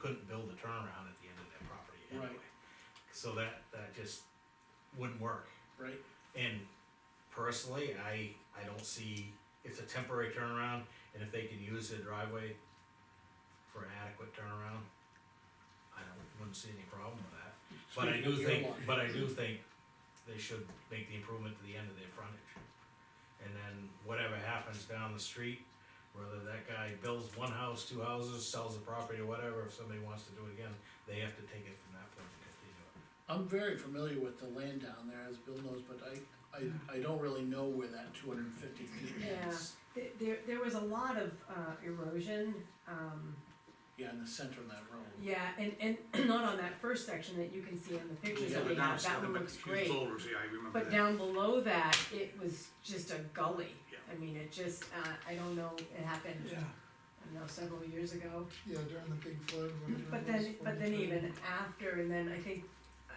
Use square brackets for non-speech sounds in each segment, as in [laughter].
couldn't build a turnaround at the end of that property anyway. Right. So that, that just wouldn't work. right? And personally, I, I don't see, it's a temporary turnaround, and if they can use the driveway for an adequate turnaround, I don't, wouldn't see any problem with that. But I do Speaking of think, your but I do think they should make the improvement to the end of their frontage. And then whatever happens down the street, whether that guy builds one house, two houses, sells the property or whatever, if somebody wants to do it again, they have to take it from that point and continue it. I'm very familiar with the land down there, as Bill knows, but I, I, I don't really know where that two hundred and fifty feet Yeah. is. Th- There, there was a lot of uh, erosion, um, Yeah, in the center of that road. yeah, and, [clears throat] and not on that first section that you can see in the pictures Yeah, that but we now have, it's that nothing one but looks huge great. boulders, yeah, I remember But that. down below that, it was just a gully. Yeah. I mean, it just, uh, I don't know, it happened, Yeah, I don't know, several years ago. yeah, during the big flood. when it But was then, but then 43. even after, and then I think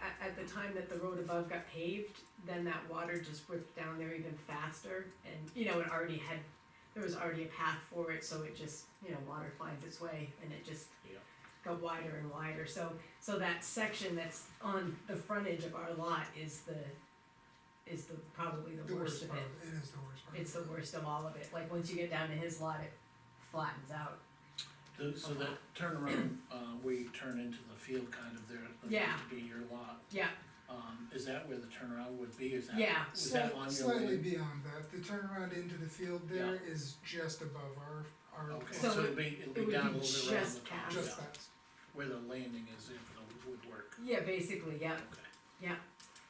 at, at the time that the road above got paved, then that water just whipped down there even faster. And, you know, it already had, there was already a path for it, so it just, you know, water finds its way and it just Yeah. got wider and wider. So, so that section that's on the frontage of our lot is the, is the, probably the The worst of part, it. uh, it is the worst part. It's the worst of all of it. Like, once you get down to his lot, it flattens out. The- So that turnaround, uh, where you turn into the field kind of there, that Yeah. used to be your lot. Yeah, Um, is that where the turnaround would be, is that? Yeah. Is that Slight- on your Slightly land? beyond that, the turnaround into the field there is just above our, our, Okay, So so it- it'd be, it'll it be would down a be little bit around just the top, past. just yeah, that. where the landing is in for the woodwork, yeah, basically, yeah. okay,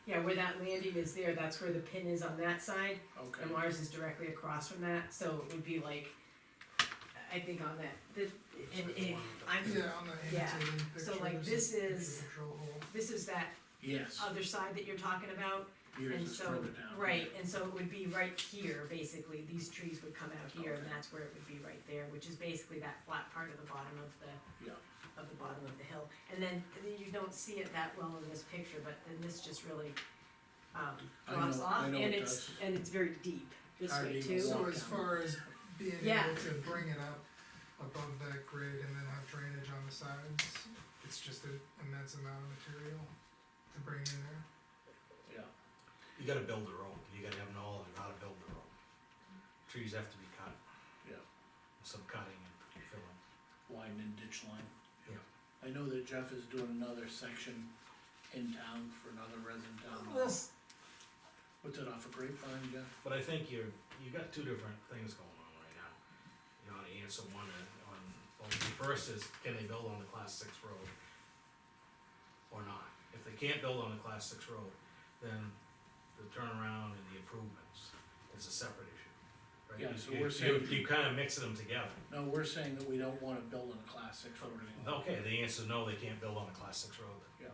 Yeah, where that landing is there, that's where the pin is on that side, and okay. ours is directly across from that, so it would be like, I think on that, the, and it, I'm, Yeah, on the Yeah. annotated pictures. So, like, this and is- the Drill hole. this is that Yes, other side that you're talking about, yours Uh, and is so, further down. right, and so it would be right here, basically, these trees would come out here, and that's where it would be right there, which is basically that flat part of the bottom of the Yeah. of the bottom of the hill, and then, and then you don't see it that well in this picture, but then this just really, um, I drops know- I off, and know it it's, does. and it's very deep this I way mean, too. So walk as down. far as being Yeah. able to bring it up above that grade and then have drainage on the sides, it's just an immense amount of material to bring in there. Yeah, You gotta build the road, you gotta have knowledge of how to build the road. Trees have to be cut, yeah. some cutting and filling. widen and ditch line. Yeah. I know that Jeff is doing another section in town for another resident down there. Well, What's it off a grapevine, Jeff? But I think you're, you got two different things going on right now. You ought to answer one on, on, well, the first is, can they build on the class six road? Or not? If they can't build on the class six road, then the turnaround and the improvements is a separate issue. right? Yeah, so You- we're you- saying- You kinda mixing them together. No, we're saying that we don't wanna build on a class six road anymore. Okay, the answer is no, they can't build on the class six road. Yeah.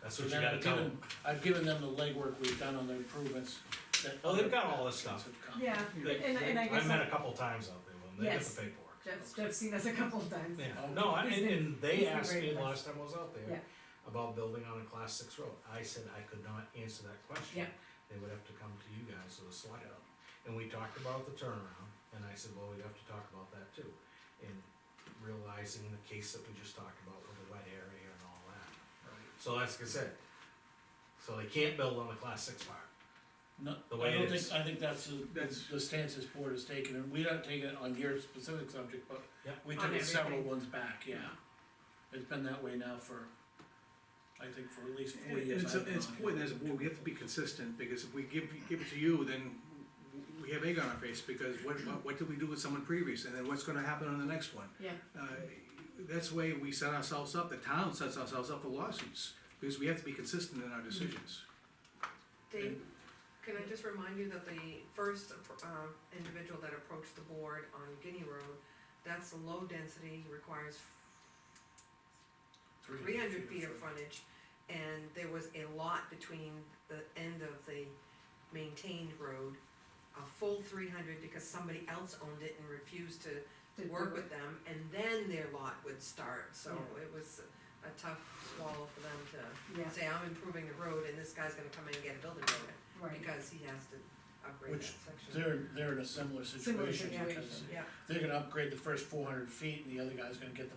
That's So what you then gotta I've tell given- them. I've given them the legwork we've done on the improvements that. Oh, they've got all this stuff. have come. Yeah, They- and, and I I've guess met a couple times out there, when they get Yes. the paperwork. Jeff's, Jeff's seen us a couple of times. Yeah, Oh. no, I- and, and they He's a asked great me person. last time I was out Yeah. there about building on a class six road. I said I could not answer that question. Yeah. They would have to come to you guys or the select. Yeah. And we talked about the turnaround, and I said, well, we have to talk about that too. And realizing the case that we just talked about with the wet area and all that. Right. So that's like I said. So they can't build on the class six part. No, The I way it don't is. think, I think that's the- That's- the stance this board has taken, and we don't take it on your specific subject, but Yep. we On took it several everything. ones back, yeah. It's been that way now for, I think for at least And four years. It's, I've been it's on it. important as a board, we have to be consistent, because if we give, give it to you, then we have egg on our face, because what, what, what did we do with someone previous, and then what's gonna happen on the next one? Yeah. Uh, that's the way we set ourselves up, the town sets ourselves up for lawsuits, because we have to be consistent in our decisions. Dave, can I just remind you that the first uh, individual that approached the board on Guinea Road, that's a low density, requires three hundred feet of frontage, and there was a lot between the end of the maintained road, a full three hundred, because somebody else owned it and refused to To do work it. with them, and then their lot would start, so Yeah. it was a tough swallow for them to Yeah, say, I'm improving the road, and this guy's gonna come in and get a building permit right. because he has to upgrade that Which section. They're, they're in a similar Similar situation, because situation. Yeah. they're gonna upgrade the first four hundred feet, and the other guy's gonna get the